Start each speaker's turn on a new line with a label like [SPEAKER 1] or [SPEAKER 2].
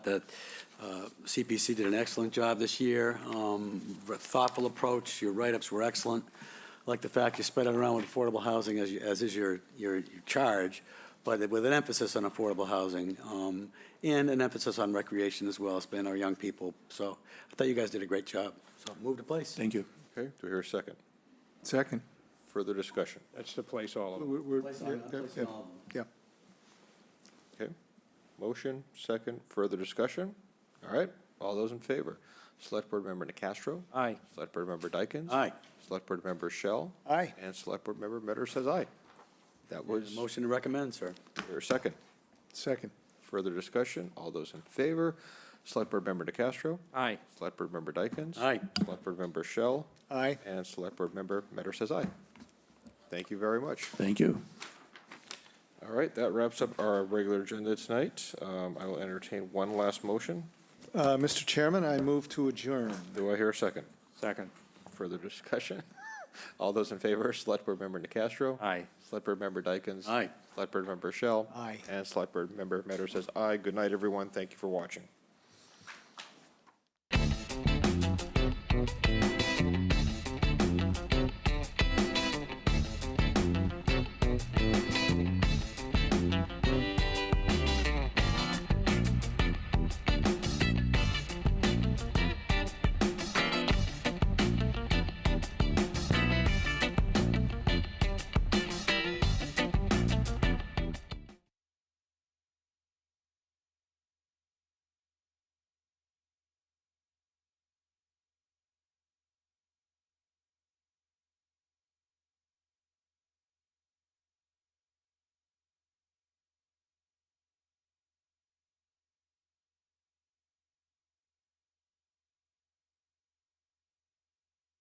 [SPEAKER 1] that uh, CPC did an excellent job this year, um, thoughtful approach, your write-ups were excellent. I Like the fact you spread it around with affordable housing as, you- as is your, your your charge, but with an emphasis on affordable housing, um, and an emphasis on recreation as well, spend our young people. So I thought you guys did a great job, so move to place.
[SPEAKER 2] Thank you.
[SPEAKER 3] Okay, do we hear a second?
[SPEAKER 4] Second.
[SPEAKER 3] Further discussion?
[SPEAKER 5] That's the place all of them.
[SPEAKER 4] We're- we're-
[SPEAKER 1] Place on-
[SPEAKER 4] yeah,
[SPEAKER 1] place
[SPEAKER 4] yeah,
[SPEAKER 1] on all of them.
[SPEAKER 4] Yeah.
[SPEAKER 3] Okay. Motion, second, further discussion? All right, all those in favor? Select Board Member DeCastro.
[SPEAKER 5] Aye.
[SPEAKER 3] Select Board Member Dykens.
[SPEAKER 1] Aye.
[SPEAKER 3] Select Board Member Shell.
[SPEAKER 4] Aye.
[SPEAKER 3] And Select Board Member Metter says aye. That was, do
[SPEAKER 1] Motion to recommend, sir.
[SPEAKER 3] we hear a second?
[SPEAKER 4] Second.
[SPEAKER 3] Further discussion? All those in favor? Select Board Member DeCastro.
[SPEAKER 5] Aye.
[SPEAKER 3] Select Board Member Dykens.
[SPEAKER 1] Aye.
[SPEAKER 3] Select Board Member Shell.
[SPEAKER 4] Aye.
[SPEAKER 3] And Select Board Member Metter says aye. Thank you very much.
[SPEAKER 2] Thank you.
[SPEAKER 3] All right, that wraps up our regular agenda tonight. Um, I will entertain one last motion.
[SPEAKER 4] Uh, Mr. Chairman, I move to adjourn.
[SPEAKER 3] Do I hear a second?
[SPEAKER 5] Second.
[SPEAKER 3] Further discussion? All those in favor, Select Board Member Castro.
[SPEAKER 5] Aye.
[SPEAKER 3] Select Board Member Dykens.
[SPEAKER 1] Aye.
[SPEAKER 3] Select Board Member Shell.
[SPEAKER 4] Aye.
[SPEAKER 3] And Select Board Member Metter says aye. Good night, everyone. Thank you for watching.